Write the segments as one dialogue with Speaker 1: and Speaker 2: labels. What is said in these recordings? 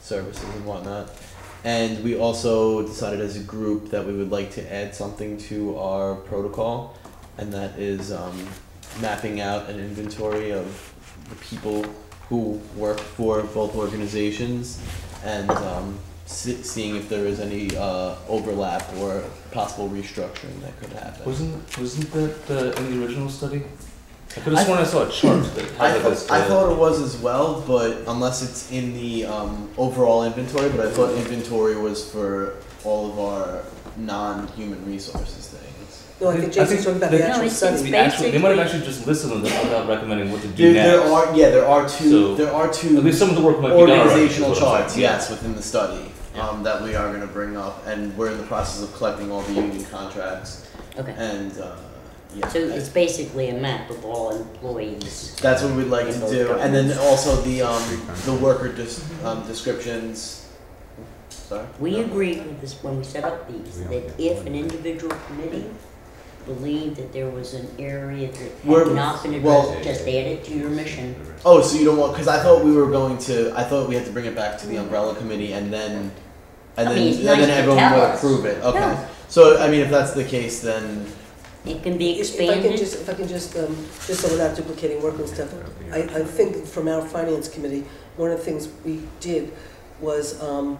Speaker 1: services and whatnot. And we also decided as a group that we would like to add something to our protocol, and that is um, mapping out an inventory of the people who work for both organizations and um, se- seeing if there is any uh, overlap or possible restructuring that could happen.
Speaker 2: Wasn't wasn't that the, in the original study? I could
Speaker 1: I-
Speaker 2: have sworn I, saw a chart that
Speaker 1: I,
Speaker 2: had
Speaker 1: thought-
Speaker 2: this.
Speaker 1: I
Speaker 2: uh,
Speaker 1: thought it was as well, but unless it's in the um, overall inventory, but I thought inventory was for all of our non-human resources things.
Speaker 3: No, I
Speaker 2: I think-
Speaker 3: think
Speaker 2: I
Speaker 3: Jason's
Speaker 2: think
Speaker 3: talking about
Speaker 2: the-
Speaker 3: the
Speaker 2: No,
Speaker 3: actual
Speaker 4: it's-
Speaker 3: study.
Speaker 4: it's-
Speaker 2: the actual- they might have
Speaker 4: basically-
Speaker 2: actually just listed on this without recommending what to do
Speaker 1: There,
Speaker 2: next.
Speaker 1: there are yeah, there are two
Speaker 2: So-
Speaker 1: there are
Speaker 2: At
Speaker 1: two
Speaker 2: least some of the work might be done already, is
Speaker 1: organizational
Speaker 2: what I'm saying.
Speaker 1: charts yes within the study
Speaker 2: Yeah.
Speaker 1: um, that we are going to bring up, and we're in the process of collecting all the union contracts
Speaker 4: Okay.
Speaker 1: and uh, yeah.
Speaker 4: So it's basically a map of all employees.
Speaker 1: That's what we'd like
Speaker 4: In
Speaker 1: to
Speaker 4: both
Speaker 1: do, and then
Speaker 4: governments.
Speaker 1: also the um, the worker dis- um, descriptions. Sorry.
Speaker 4: We
Speaker 1: No.
Speaker 4: agreed with this when we set up these, that if an individual committee believed that there was an area that
Speaker 1: We're-
Speaker 4: had not been
Speaker 1: well-
Speaker 4: addressed, just add it to your mission.
Speaker 1: Oh, so you don't want? Because I thought we were going to. I thought we had to bring it back to the umbrella committee, and then, and
Speaker 4: I
Speaker 1: then,
Speaker 4: mean, it's
Speaker 1: and
Speaker 4: nice
Speaker 1: then
Speaker 4: to
Speaker 1: everyone
Speaker 4: tell
Speaker 1: would
Speaker 4: us.
Speaker 1: approve it. Okay.
Speaker 4: Yeah.
Speaker 1: So I mean, if that's the case, then
Speaker 4: It can be
Speaker 3: If I can
Speaker 4: expanded.
Speaker 3: just, if I can just, um, just so we're not duplicating work and stuff, I, I think from our finance committee, one of the things we did was, um,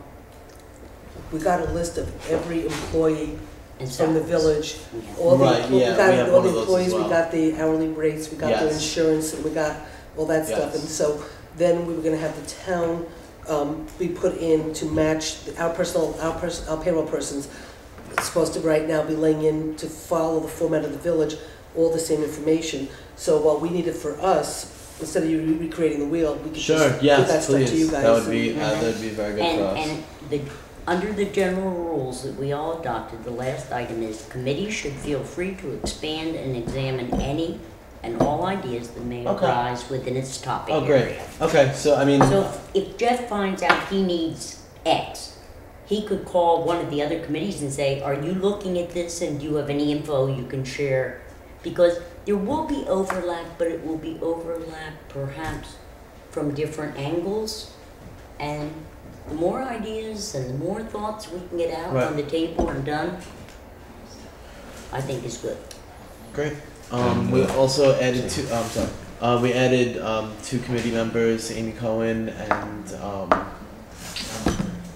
Speaker 3: we got a list of every employee
Speaker 4: and
Speaker 3: from the
Speaker 4: salaries.
Speaker 3: village,
Speaker 4: Yeah.
Speaker 3: all the,
Speaker 1: Right, yeah,
Speaker 3: we
Speaker 1: we have
Speaker 3: got all
Speaker 1: one of those
Speaker 3: the
Speaker 1: as
Speaker 3: employees, we
Speaker 1: well.
Speaker 3: got the hourly rates, we got their
Speaker 1: Yes.
Speaker 3: insurance, and we got all that stuff.
Speaker 1: Yes.
Speaker 3: And so then we were gonna have the town, um, be put in to match our personal, our pers- our payroll persons. Supposed to right now be laying in to follow the format of the village, all the same information. So what we needed for us, instead of you re- recreating the wheel, we could just
Speaker 1: sure.
Speaker 3: give that
Speaker 1: Yes,
Speaker 3: stuff to you
Speaker 1: please.
Speaker 3: guys.
Speaker 1: That would be
Speaker 3: and-
Speaker 1: uh, that would be very good
Speaker 4: And,
Speaker 1: for us.
Speaker 4: and the, under the general rules that we all adopted, the last item is committees should feel free to expand and examine any and all ideas that may
Speaker 1: Okay.
Speaker 4: arise within its topic
Speaker 1: Oh, great.
Speaker 4: area.
Speaker 1: okay, so I mean,
Speaker 4: So if if Jeff finds out he needs X, he could call one of the other committees and say, are you looking at this and do you have any info you can share? Because there will be overlap, but it will be overlap perhaps from different angles. And the more ideas and the more thoughts we can get out on the table and done, I think is good.
Speaker 1: Great. Um, we also added two. Um, sorry. Uh, we added um, two committee members, Amy Cohen and um,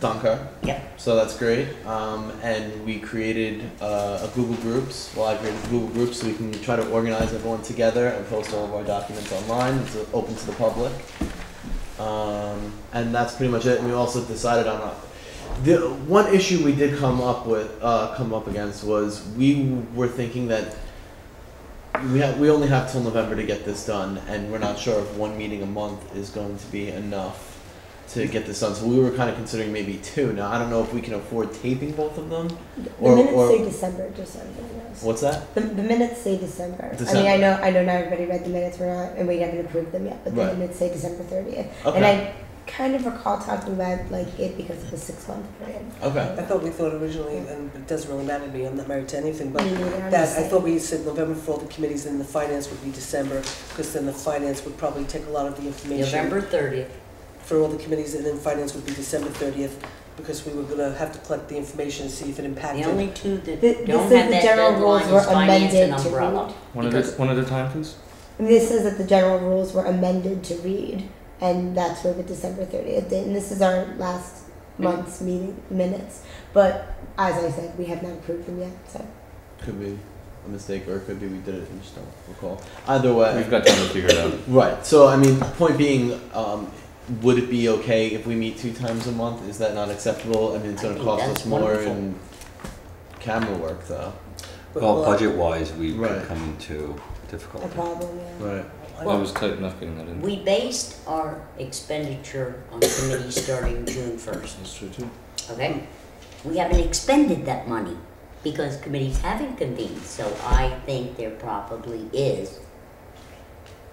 Speaker 1: Donka.
Speaker 4: Yep.
Speaker 1: So that's great. Um, and we created uh, a Google Groups. Well, I created a Google Groups so we can try to organize everyone together and post all of our documents online. It's uh, open to the public. Um, and that's pretty much it. And we also decided on a, the one issue we did come up with, uh, come up against was we were thinking that we have, we only have till November to get this done, and we're not sure if one meeting a month is going to be enough to get this done. So we were kind of considering maybe two. Now I don't know if we can afford taping both of them.
Speaker 5: The
Speaker 1: Or-
Speaker 5: minutes
Speaker 1: or-
Speaker 5: say December, just so everybody knows.
Speaker 1: What's that?
Speaker 5: The, the minutes say December. I mean,
Speaker 1: December.
Speaker 5: I know, I know not everybody read the minutes, we're not, and we haven't approved them yet, but
Speaker 1: Right.
Speaker 5: the minutes say December thirtieth.
Speaker 1: Okay.
Speaker 5: And I kind of recall talking about like it because of the six month period.
Speaker 1: okay.
Speaker 3: I thought we thought originally, and it doesn't really matter to me, I'm not married to anything, but
Speaker 5: Me neither,
Speaker 3: That,
Speaker 5: I'm just
Speaker 3: I
Speaker 5: saying.
Speaker 3: thought we said November for all the committees, and the finance would be December, because then the finance would probably take a lot of the information
Speaker 4: November thirtieth,
Speaker 3: for all the committees, and then finance would be December thirtieth, because we were gonna have to collect the information and see if it
Speaker 4: the
Speaker 3: impacted.
Speaker 4: only two that
Speaker 5: Th-
Speaker 4: don't
Speaker 5: this is
Speaker 4: have
Speaker 5: the
Speaker 4: that
Speaker 5: general rules
Speaker 4: deadline
Speaker 5: were
Speaker 4: is finance and
Speaker 5: amended to
Speaker 4: umbrella.
Speaker 2: One at
Speaker 4: Because-
Speaker 2: a, one at a time, please.
Speaker 5: And this says that the general rules were amended to read, and that's where the December thirtieth, and this is our last month's meeting minutes. But as I said, we have not approved them yet, so.
Speaker 1: Could be a mistake, or it could be we did it and just don't recall. Either way,
Speaker 2: We've got time to figure it out.
Speaker 1: Right. So I mean, point being, um, would it be okay if we meet two times a month? Is that not acceptable? I mean, it's
Speaker 4: I
Speaker 1: going to
Speaker 4: think
Speaker 1: cost
Speaker 4: that's
Speaker 1: us more
Speaker 4: wonderful.
Speaker 1: in camera work, though.
Speaker 3: But
Speaker 6: Well,
Speaker 3: we'll-
Speaker 6: budget wise, we
Speaker 1: Right.
Speaker 6: could come into
Speaker 5: A
Speaker 6: difficulty.
Speaker 5: problem, yeah.
Speaker 1: Right.
Speaker 3: I
Speaker 2: That
Speaker 3: don't-
Speaker 2: was tight enough getting that in.
Speaker 4: We based our expenditure on committee starting June first,
Speaker 2: That's true too.
Speaker 4: okay? We haven't expended that money because committees haven't convened, so I think there probably is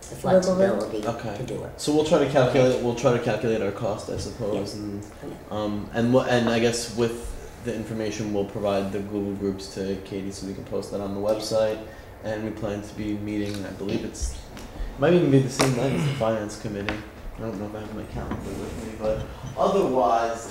Speaker 4: the
Speaker 5: Wiggle room.
Speaker 4: flexibility
Speaker 1: Okay.
Speaker 4: to do it.
Speaker 1: So we'll try to calculate. We'll try to calculate our cost, I suppose, and um, and wha- and I guess with the information, we'll provide the Google groups to Katie so we can post that on the website. And we plan to be meeting. I believe it's might even be the same night as the finance committee. I don't know if I have my calendar with me, but otherwise,